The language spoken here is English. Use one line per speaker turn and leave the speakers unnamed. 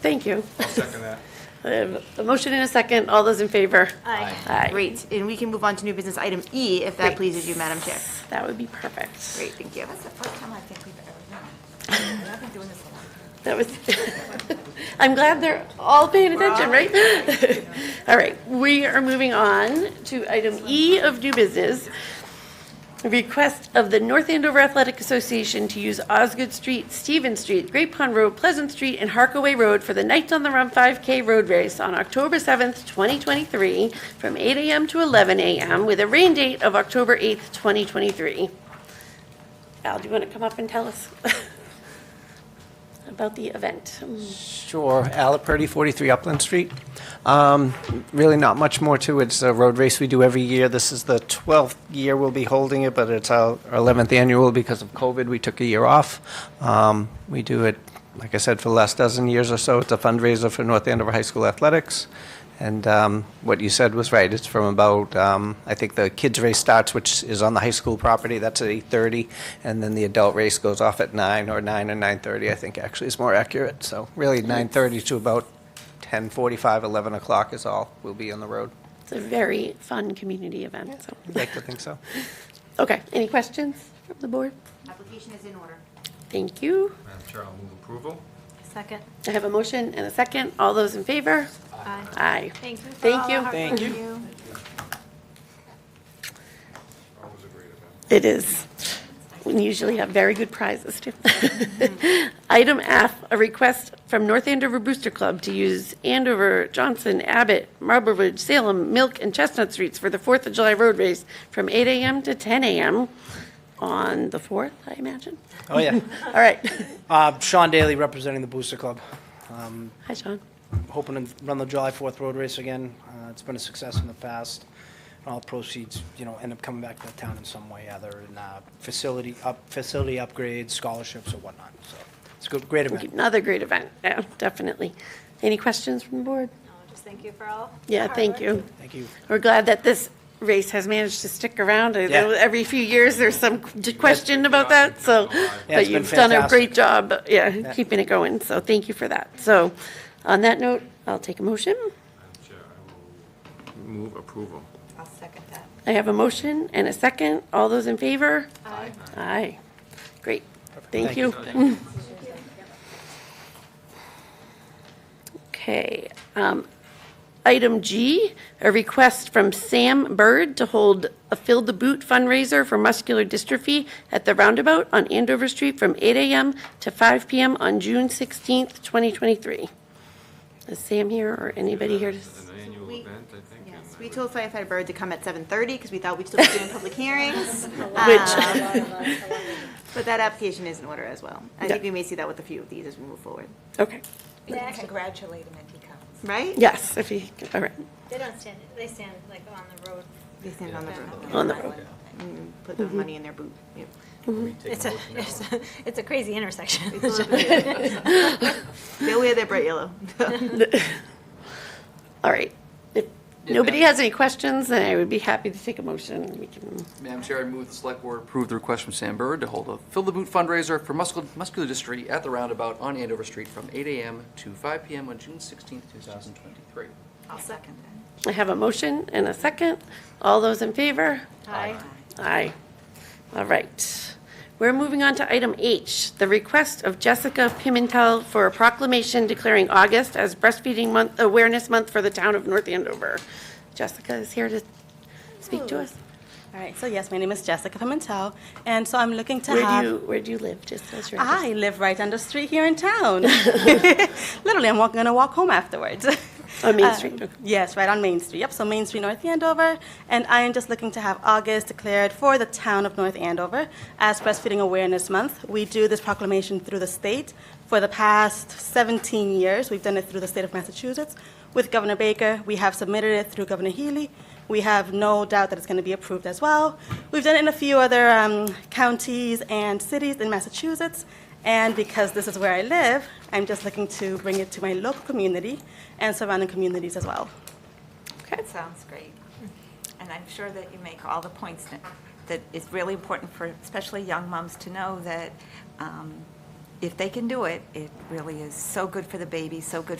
Thank you.
Second that.
I have A motion and a second. All those in favor?
Aye.
Aye.
Great, and we can move on to new business item E, if that
Great.
pleases you, Madam Chair.
That would be perfect.
Great, thank you.
That's the first time I think we've ever done it. I've been doing this a long time.
That was, I'm glad they're all paying attention, right? All right, we are moving on to item E of new business. Request of the North Andover Athletic Association to use Osgood Street, Stevens Street, Great Pond Road, Pleasant Street, and Harkaway Road for the Knights on the Run 5K Road Race on October 7th, 2023, from 8 AM to 11 AM, with a rain date of October 8th, 2023. Al, do you want to come up and tell us? about the event.
Sure, Alaperty, 43 Upland Street. Um, Really not much more to it. It's a road race we do every year. This is the 12th year we'll be holding it, but it's our our 11th annual because of COVID. We took a year off. Um, We do it, like I said, for the last dozen years or so. It's a fundraiser for North Andover High School Athletics. And um, what you said was right. It's from about, um, I think the kids' race starts, which is on the high school property. That's at 8:30, and then the adult race goes off at nine or nine or 9:30. I think actually is more accurate. So really 9:30 to about 10:45, 11 o'clock is all. We'll be on the road.
It's a very fun community event, so.
I'd like to think so.
Okay, any questions from the board?
Application is in order.
Thank you.
Madam Chair, I'll move approval.
Second.
I have a motion and a second. All those in favor?
Aye.
Aye.
Thank you. for
Thank
all
you.
our hard
Thank
work.
you.
Always a great event.
It is. We usually have very good prizes, too. Item F, a request from North Andover Booster Club to use Andover, Johnson, Abbott, Marble Ridge, Salem, Milk, and Chestnut Streets for the Fourth of July Road Race from 8 AM to 10 AM on the 4th, I imagine.
Oh, yeah.
All right.
Uh, Sean Daly representing the Booster Club. Um,
Hi, Sean.
hoping to run the July 4th road race again. Uh, it's been a success in the past. And all proceeds, you know, end up coming back to the town in some way, either in uh, facility up, facility upgrades, scholarships, or whatnot. So it's a good, great event.
Another great event, yeah, definitely. Any questions from the board?
No, Just thank you for all.
Yeah,
the hard
thank
work.
you.
Thank you.
We're glad that this race has managed to stick around. I know
Yeah.
Every few years, there's some q- question about that, so, but
it's been
you've done a great
fantastic.
job, yeah, keeping it going, so thank you for that. So, on that note, I'll take a motion.
Madam Chair, I will move approval.
I'll second that.
I have a motion and a second. All those in favor? Aye. Aye. Great, thank
Thank
you.
you.
Okay. um, Item G, a request from Sam Bird to hold a Fill the Boot fundraiser for muscular dystrophy at the Roundabout on Andover Street from 8 AM to 5 PM on June 16th, 2023. Is Sam here or anybody here? to s-
An annual
We-
event, I think. and
Yes,
I
we
would-
told firefighter Bird to come at 7:30 because we thought we'd still be doing public hearings. Um,
Which,
But that application is in order as well. I think
Yeah.
we may see that with a few of these as we move forward,
okay,
We can congratulate him if he comes.
right?
yes, if you, all right,
They don't stand, they stand like on the road.
They stand on the road,
on the road.
put the money in their boot. Yep.
It's a, it's a, it's a crazy intersection.
They'll wear their bright yellow.
All right. If nobody has any questions, then I would be happy to take a motion. We can,
Madam Chair, I move the Select Board approve the request from Sam Bird to hold a Fill the Boot fundraiser for muscul- muscular dystrophy at the Roundabout on Andover Street from 8 a.m. to 5 p.m. on June 16, 2023.
I'll second that.
I have a motion and a second. All those in favor?
Hi.
Aye. All right. We're moving on to item H, the request of Jessica Pimentel for a proclamation declaring August as Breastfeeding Month, Awareness Month for the town of North Andover. Jessica is here to speak to us.
All right, so yes, my name is Jessica Pimentel, and so I'm looking to
Where
have.
do you, where do you live, just as your address?
I live right down the street here in town. Literally, I'm walk, gonna walk home afterwards.
On Oh, Main
Uh,
Street, okay.
Yes, right on Main Street. Yep, so Main Street, North Andover, and I am just looking to have August declared for the town of North Andover as Breastfeeding Awareness Month. We do this proclamation through the state for the past 17 years. We've done it through the state of Massachusetts with Governor Baker. We have submitted it through Governor Healy. We have no doubt that it's going to be approved as well. We've done it in a few other um, counties and cities in Massachusetts. And because this is where I live, I'm just looking to bring it to my local community and surrounding communities as well.
That sounds great. And I'm sure that you make all the points that- that is really important for especially young moms to know that um, if they can do it, it really is so good for the baby, so good